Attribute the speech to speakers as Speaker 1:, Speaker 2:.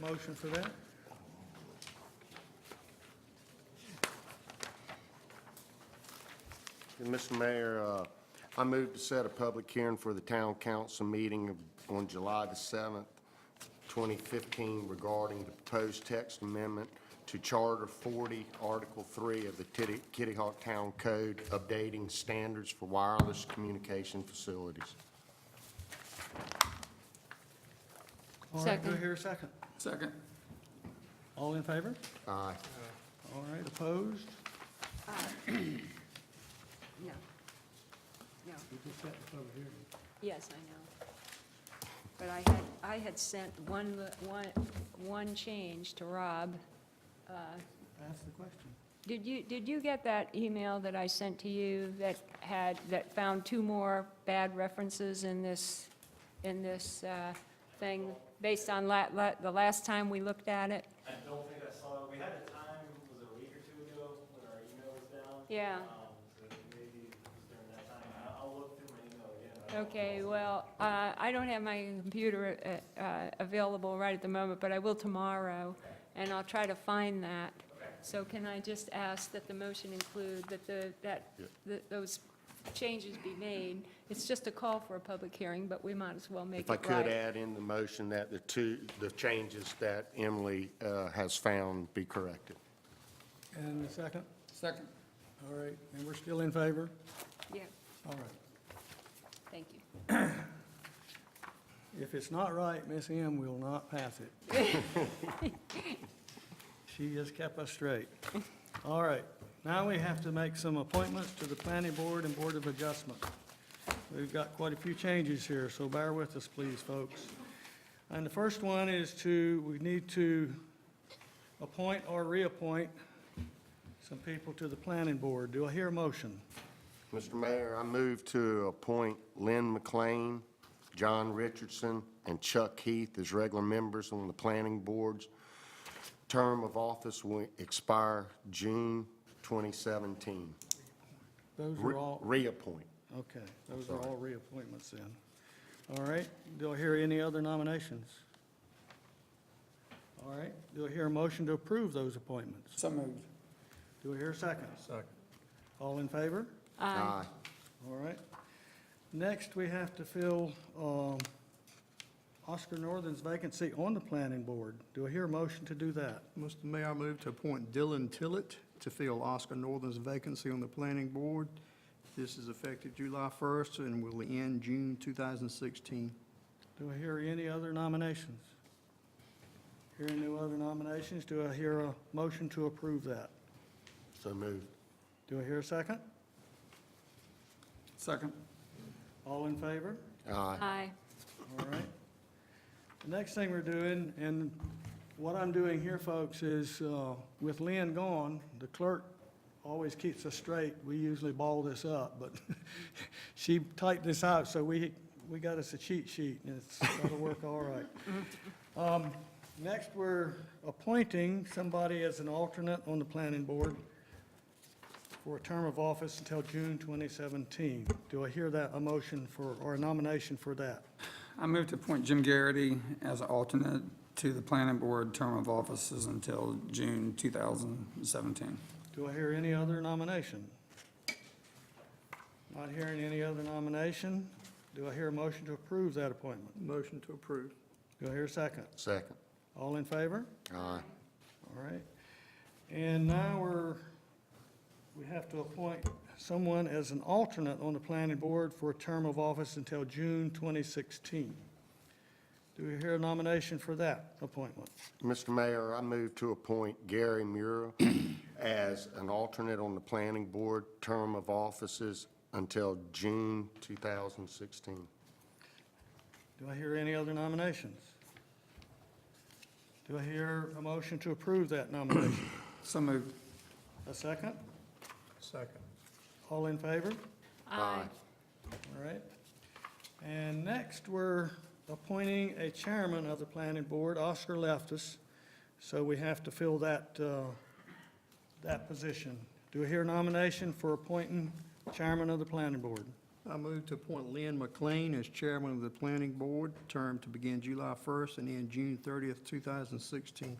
Speaker 1: motion for that?
Speaker 2: And Mr. Mayor, uh, I move to set a public hearing for the town council meeting of- on July the 7th, 2015 regarding the proposed text amendment to Charter 40, Article 3 of the Titti- Kitty Hawk Town Code, updating standards for wireless communication facilities.
Speaker 1: All right, Do I
Speaker 3: Second.
Speaker 1: hear a second?
Speaker 4: Second.
Speaker 1: All in favor?
Speaker 2: Aye.
Speaker 1: All right, opposed?
Speaker 3: No. No. Yes, I know. But I had, I had sent one, li- one, one change to Rob.
Speaker 1: Ask the question.
Speaker 3: Did you, did you get that email that I sent to you that had, that found two more bad references in this, in this uh, thing, based on la, la, the last time we looked at it?
Speaker 5: I don't think I saw it. We had a time, was it a week or two ago, when our email was down?
Speaker 3: Yeah.
Speaker 5: Um, So maybe it was during that time. I- I'll look through my email again. I don't-
Speaker 3: Okay, well, uh, I don't have my computer uh, uh, available right at the moment, but I will tomorrow, and I'll try to find that. So can I just ask that the motion include that the, that, that those changes be made? It's just a call for a public hearing, but we might as well make
Speaker 2: If
Speaker 3: it
Speaker 2: I
Speaker 3: right.
Speaker 2: could add in the motion that the two, the changes that Emily uh, has found be corrected.
Speaker 1: And the second?
Speaker 4: Second.
Speaker 1: All right, and we're still in favor?
Speaker 3: Yeah,
Speaker 1: All right.
Speaker 3: thank you.
Speaker 1: If it's not right, Miss M will not pass it. She just kept us straight. All right, now we have to make some appointments to the planning board and board of adjustment. We've got quite a few changes here, so bear with us, please, folks. And the first one is to, we need to appoint or reappoint some people to the planning board. Do I hear a motion?
Speaker 2: Mr. Mayor, I move to appoint Lynn McLean, John Richardson, and Chuck Heath as regular members on the planning boards. Term of office will expire June 2017.
Speaker 1: Those
Speaker 2: Re-
Speaker 1: are all.
Speaker 2: Reappoint.
Speaker 1: Okay, those are all reappointments then. All right, do I hear any other nominations? All right, do I hear a motion to approve those appointments?
Speaker 4: So moved.
Speaker 1: Do I hear a second? Second. All in favor?
Speaker 2: Aye.
Speaker 1: All right. Next, we have to fill um, Oscar Northern's vacancy on the planning board. Do I hear a motion to do that?
Speaker 6: Mr. Mayor, I move to appoint Dylan Tillett to fill Oscar Northern's vacancy on the planning board. This is effective July 1st and will end June 2016.
Speaker 1: Do I hear any other nominations? Hearing no other nominations, do I hear a motion to approve that?
Speaker 2: So moved.
Speaker 1: Do I hear a second?
Speaker 4: Second.
Speaker 1: All in favor?
Speaker 2: Aye.
Speaker 3: Aye.
Speaker 1: All right. The next thing we're doing, and what I'm doing here, folks, is uh, with Lynn gone, the clerk always keeps us straight. We usually ball this up, but she typed this out, so we, we got us a cheat sheet, and it's, that'll work all right. Um, Next, we're appointing somebody as an alternate on the planning board for a term of office until June 2017. Do I hear that, a motion for, or a nomination for that?
Speaker 4: I move to appoint Jim Garrity as alternate to the planning board. Term of offices until June 2017.
Speaker 1: Do I hear any other nomination? Not hearing any other nomination. Do I hear a motion to approve that appointment?
Speaker 6: Motion to approve.
Speaker 1: Do I hear a second?
Speaker 2: Second.
Speaker 1: All in favor?
Speaker 2: Aye.
Speaker 1: All right. And now we're, we have to appoint someone as an alternate on the planning board for a term of office until June 2016. Do we hear a nomination for that appointment?
Speaker 2: Mr. Mayor, I move to appoint Gary Muir as an alternate on the planning board. Term of offices until June 2016.
Speaker 1: Do I hear any other nominations? Do I hear a motion to approve that nomination?
Speaker 4: So moved.
Speaker 1: A second?
Speaker 6: Second.
Speaker 1: All in favor?
Speaker 3: Aye.
Speaker 1: All right. And next, we're appointing a chairman of the planning board. Oscar left us, so we have to fill that, uh, that position. Do I hear a nomination for appointing chairman of the planning board?
Speaker 6: I move to appoint Lynn McLean as chairman of the planning board, term to begin July 1st and end June 30th, 2016.